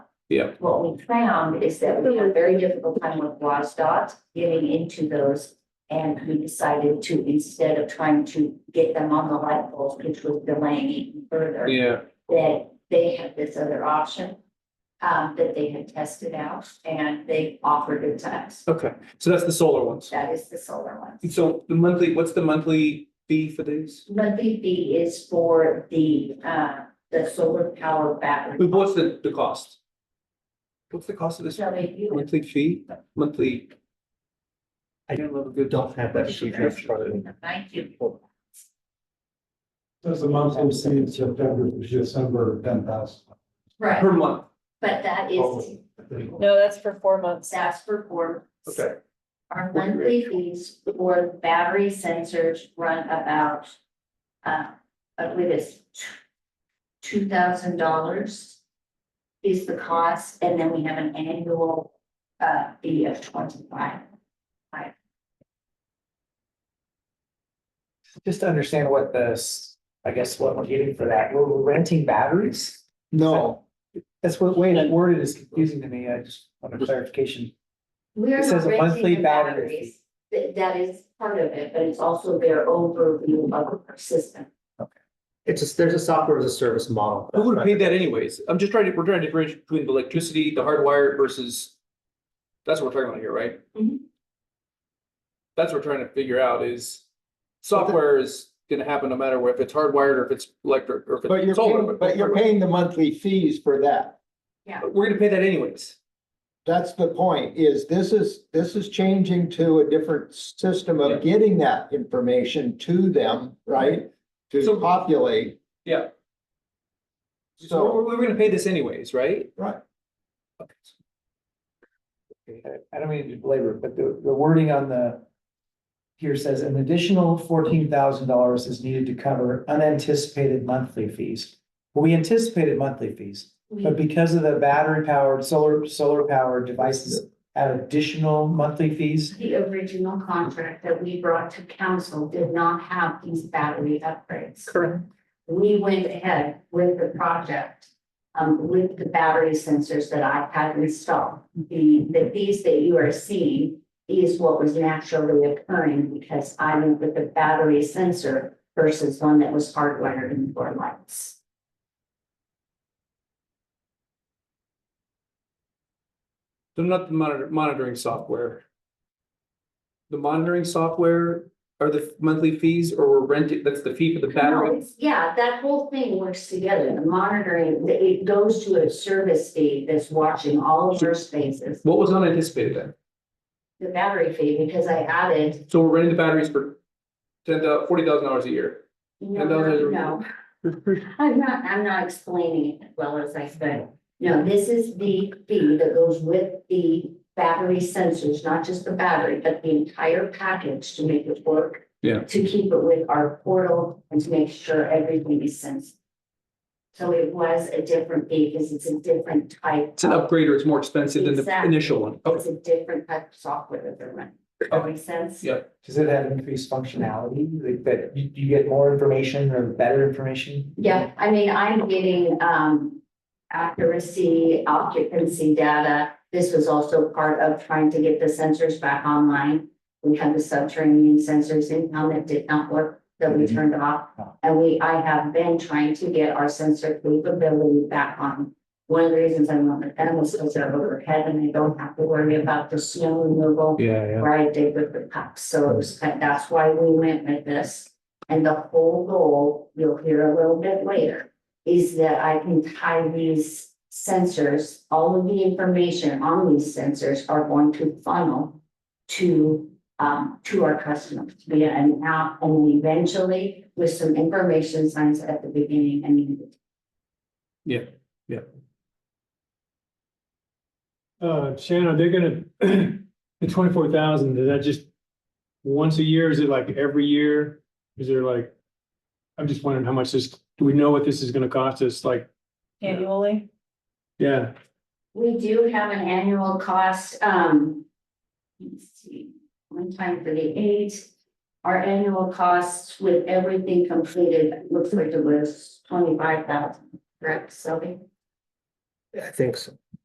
Yeah. What we found is that we had a very difficult time with WASDOT getting into those. And we decided to, instead of trying to get them on the light poles, which was delaying it even further Yeah, that they had this other option um, that they had tested out and they offered it to us. okay. So that's the solar ones. That is the solar one. So the monthly, what's the monthly fee for these? Monthly fee is for the, uh, the solar power battery. What's the, the cost? What's the cost of this So they do. monthly fee, monthly? I don't love a good. Don't have that sheet in front of me. Thank you. Does the monthly see in September to December, ten thousand? Right, Per month, but that is, No, that's for four months. that's for four. okay. Our monthly fees for battery sensors run about, uh, I believe it's two thousand dollars is the cost, and then we have an annual, uh, fee of twenty-five. Just to understand what this, I guess what we're getting for that, we're we're renting batteries? No. That's what, way that worded is confusing to me. I just want a clarification. We are It says not a monthly renting the battery batteries. That, that is part of it, but it's also their overview of our system. It's a, there's a software as a service model. Who would have paid that anyways? I'm just trying to, we're trying to bridge between the electricity, the hardwired versus. That's what we're talking about here, right? Mhm. That's what we're trying to figure out is software is gonna happen no matter where, if it's hardwired or if it's electric or if But you're it's solar. paying, but you're hardwired. paying the monthly fees for that. We're gonna pay that anyways. That's the point, is this is, this is changing to a different system Yeah. of getting that information to them, right? So- To populate. Yeah. So So, we're, we're gonna pay this anyways, right? right, I don't mean to belabor, it, but the, the wording on the. Here says an additional fourteen thousand dollars is needed to cover unanticipated monthly fees. We anticipated monthly fees. We- But because of the battery powered, solar, solar powered devices add additional monthly fees, The original contract that we brought to council did not have these battery upgrades. Correct. We went ahead with the project, um, with the battery sensors that I had installed. The, the fees that you are seeing is what was naturally occurring because I went with the battery sensor versus one that was hardwired in four lights. So not the monitor, monitoring software. The monitoring software are the monthly fees or we're renting, that's the fee for the No, battery? it's- Yeah, that whole thing works together. The monitoring, it- it goes to a service fee that's watching all of your spaces. What was unanticipated then? The battery fee, because I added, So we're renting the batteries for ten thou- forty thousand dollars a year. no, And those no, are- no. I'm not, I'm not explaining it as well as I could. No, this is the fee that goes with the battery sensors, not just the battery, but the entire package to make it work. Yeah. To keep it with our portal and to make sure everything is sensible. So it was a different fee because it's a different type. It's an of- upgrade or it's more expensive than the Exactly. initial one. It's a different type of software that they're running. Does that make sense? Oh, Yeah. does it have increased functionality? Like that you, you get more information or better information? Yeah, I mean, I'm getting, um, accuracy, occupancy data. This was also part of trying to get the sensors back online. We had the subterranean sensors in town that did not work, that we turned off. And we, I have been trying to get our sensor capability back on. One of the reasons I'm on the panel is because they're overhead and I don't have to worry about the snow removal. Yeah, yeah. Right, I did with the cups, so it was, kind- that's why we went with this. And the whole goal, you'll hear a little bit later, is that I can tie these sensors, all of the information on these sensors are going to funnel to, um, to our customers via an app and eventually with some information signs at the beginning and the end. Uh, Shannon, they're gonna, the twenty-four thousand, is that just once a year? Is it like every year? Is there like, I'm just wondering how much this, do we know what this is gonna cost us? Like, Annually, yeah, We do have an annual cost, um. Let's see, one time for the eight. Our annual costs with everything completed looks like it was twenty-five thousand, correct, Sylvia? I think so.